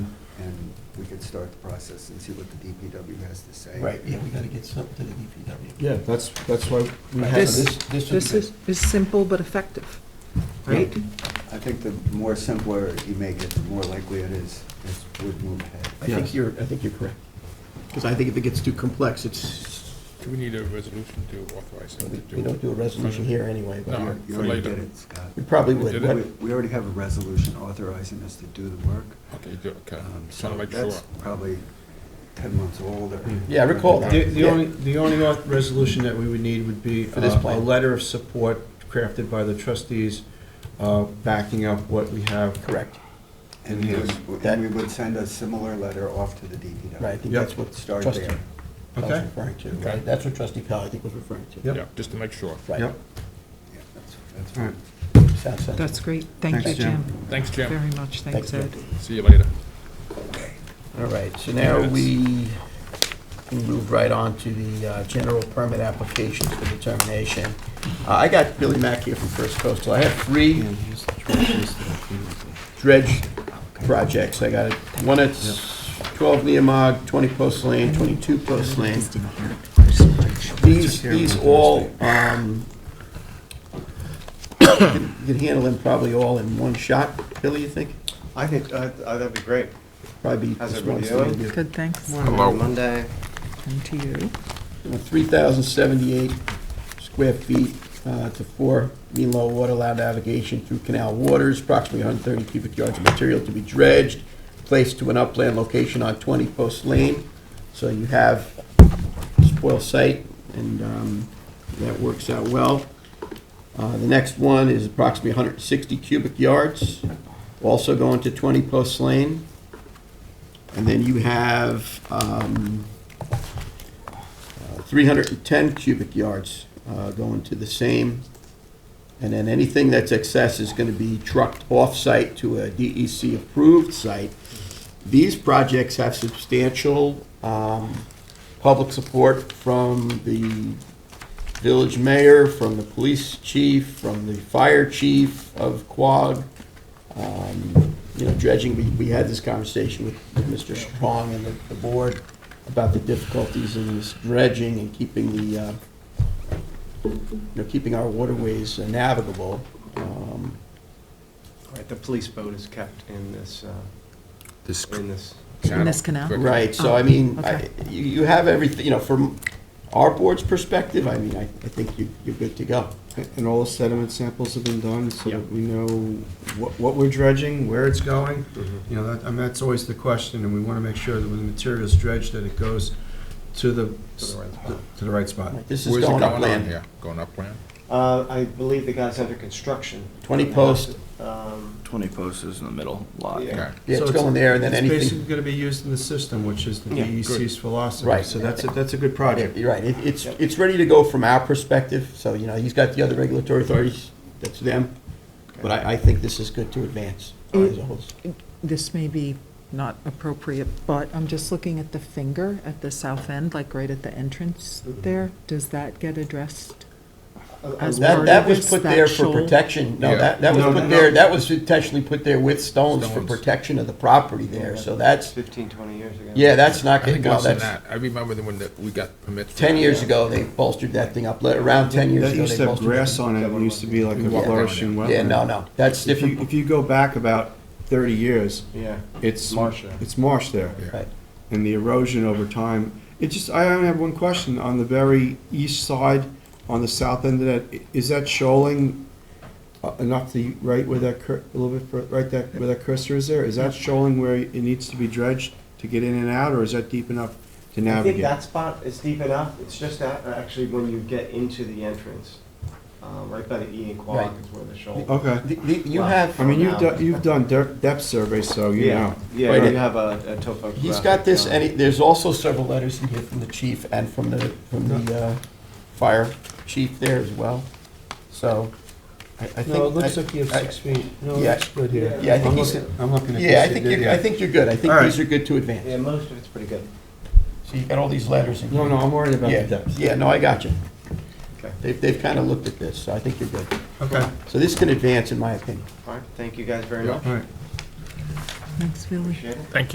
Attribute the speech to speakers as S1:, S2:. S1: could start the process and see what the DPW has to say.
S2: Right, yeah, we gotta get something to the DPW.
S3: Yeah, that's, that's why we
S2: Right,
S3: have
S2: so
S4: This-
S3: this.
S2: This, this would be
S4: This
S2: good.
S4: is, is simple but effective, right?
S1: I think the more simpler you make it, the more likely it is, is would move ahead.
S2: I think
S3: Yes.
S2: you're, I think you're correct. Because I think if it gets too complex, it's,
S5: Do we need a resolution to authorize him
S2: we
S5: to do?
S2: we don't do a resolution here anyway, but
S5: No.
S2: you're-
S1: You already
S5: Later.
S1: did it, Scott.
S2: we probably would.
S5: Did it?
S2: but-
S1: We- We already have a resolution authorizing us to do the work.
S5: Okay, do, okay.
S1: um,
S5: Just want to make
S1: so
S5: sure.
S1: that's Probably 10 months old or.
S2: Mm-hmm. Yeah, I recall that.
S6: The the
S2: Yeah.
S6: only, the only auth- resolution that we would need would be
S2: For this
S6: uh, a
S2: plan.
S6: letter of support crafted by the trustees uh, backing up what we have.
S2: Correct,
S1: And we
S6: Yes.
S1: would-
S2: That-
S1: and we would send a similar letter off to the DPW.
S2: right, I think
S6: Yep.
S2: that's what
S1: Start
S2: trustee
S1: there.
S2: Powell was
S6: Okay.
S2: referring to,
S5: Okay.
S2: right? That's what trustee Powell, I think, was referring to.
S6: Yep.
S5: Yeah, just to make sure.
S2: Right,
S6: Yep.
S1: Yeah, that's- That's
S6: All right.
S1: fine.
S2: sounds sensible.
S4: That's great. Thank you,
S6: Thanks, Jim.
S4: Jim,
S5: Thanks, Jim.
S4: very much. Thanks, Ed.
S2: Thanks,
S5: See you later.
S2: All right, so now
S5: Minutes.
S2: we can move right on to the uh, general permit applications for determination. Uh, I got Billy Mack here from First Coastal. I have three
S6: And here's the trustees that I came up with.
S2: dredge projects. I got one at 12 Neomog, 20 Post Lane, 22 Post Lane. These, these all, um, you can you can handle them probably all in one shot, Billy, you think?
S7: I think uh, uh, that'd be great.
S2: Probably be
S7: How's
S2: just one.
S7: everybody doing?
S4: Good, thanks.
S7: Hello. Monday.
S4: And to you.
S2: 3,078 square feet uh, to four mean low water allowed navigation through canal waters, approximately 130 cubic yards of material to be dredged, placed to an upland location on 20 Post Lane. So you have spoil site, and um, that works out well. Uh, The next one is approximately 160 cubic yards, also going to 20 Post Lane. And then you have um, 310 cubic yards uh, going to the same. And then anything that's excess is going to be trucked off-site to a DEC-approved site. These projects have substantial um, public support from the village mayor, from the police chief, from the fire chief of Quogue. Um, You know, dredging, we, we had this conversation with with Mr. Strong and the, the board about the difficulties in this dredging and keeping the, uh, you know, keeping our waterways navigable. Um,
S7: Right, the police boat is kept in this, uh,
S5: This
S7: in this.
S4: In this canal?
S5: Quick.
S2: Right, so I mean,
S4: Oh,
S2: I-
S4: okay.
S2: you, you have everything, you know, from our board's perspective, I mean, I, I think you, you're good to go.
S6: And all the sediment samples have been done, so
S7: Yeah.
S6: that we know what, what we're dredging, where it's going. You know, that, I mean, that's always the question, and we want to make sure that when the material's dredged, that it goes to the,
S7: To the right spot.
S6: to the right spot.
S2: This is
S5: Where's it
S2: going
S5: going on
S2: upland.
S5: here? Going upland?
S7: Uh, I believe the guy's under construction.
S2: 20 post.
S7: Um,
S8: 20 posters in the middle lot.
S7: Yeah.
S5: Okay.
S2: Yeah,
S6: So
S2: it's going there and then
S6: It's
S2: anything.
S6: basically going to be used in the system, which is the
S7: Yeah,
S9: E
S6: DEC's philosophy.
S2: Right.
S6: So that's, a that's a good project.
S2: You're right, it, it's,
S7: Yep.
S2: it's ready to go from our perspective, so, you know, he's got the other regulatory authorities, that's them. But I, I think this is good to advance as a whole.
S4: This may be not appropriate, but I'm just looking at the finger at the south end, like right at the entrance there. Does that get addressed?
S7: uh,
S4: As
S7: uh,
S2: That, that was
S4: Is
S2: put
S4: that
S2: there for
S4: shoal?
S2: protection, no,
S5: Yeah.
S2: that, that was
S6: No, no,
S2: put there,
S6: no.
S2: that was intentionally put there with stones for
S5: Stones.
S2: protection of the property there, so that's,
S7: 15, 20 years ago.
S2: yeah, that's
S5: I
S2: not gonna
S5: think
S2: go,
S5: less than
S2: that's,
S5: that. I remember the when that we got permits. for
S2: ten
S5: that.
S2: years ago, they bolstered that thing up, Let- around ten years
S9: That
S2: ago,
S9: used
S2: they
S9: to have
S2: bolstered
S9: grass
S2: it.
S9: on it, it used to be like a
S5: Yeah.
S9: flourishing wetland.
S2: Yeah, no, no, that's
S9: If you,
S2: different,
S9: if you go back about thirty years,
S7: Yeah.
S9: it's.
S7: Marsh there.
S9: It's marsh there.
S5: Yeah.
S2: right,
S9: And the erosion over time, it just, I only have one question, on the very east side, on the south end of that, i- is that shoaling uh, enough to, right where that cur, a little bit, fur- right that, where that cursor is there? Is that shoaling where it needs to be dredged to get in and out, or is that deep enough to
S7: I think
S9: navigate?
S7: that spot is deep enough. It's just that, uh, actually, when you get into the entrance, uh, right by the E and Quag
S2: Right. Oh,
S7: is where the shoulder.
S9: Okay,
S2: The- the- you
S7: Wow.
S2: have.
S9: I mean, you've done, you've done de- depth survey, so you
S7: Yeah,
S9: know.
S7: yeah,
S2: Right.
S7: you have a a topographic.
S2: He's got this,
S7: uh,
S2: and he- there's also several letters in here from the chief and from the, from the uh, fire chief there as well. So, I I think.
S6: No, it looks
S2: I-
S6: like you have
S2: I-
S6: six feet. No,
S2: Yeah.
S6: it's good here.
S2: Yeah, I think
S6: I'm
S2: he's-
S6: looking- I'm looking at this.
S2: Yeah, I think you're, I think you're good. I think
S6: All right.
S2: these are good to
S7: Yeah,
S2: advance.
S7: most of it's pretty good.
S2: So you've got all these letters in here.
S6: No, no, I'm worried about the
S2: Yeah,
S6: depth.
S2: yeah, no, I got you.
S7: Okay.
S2: They've, they've kind of looked at this, so I think you're good.
S6: Okay,
S2: So this can advance, in my opinion.
S7: All right, thank you guys very
S5: Yeah.
S7: much.
S6: all right.
S4: Thanks, Billy.
S7: Appreciate it.
S5: Thank you.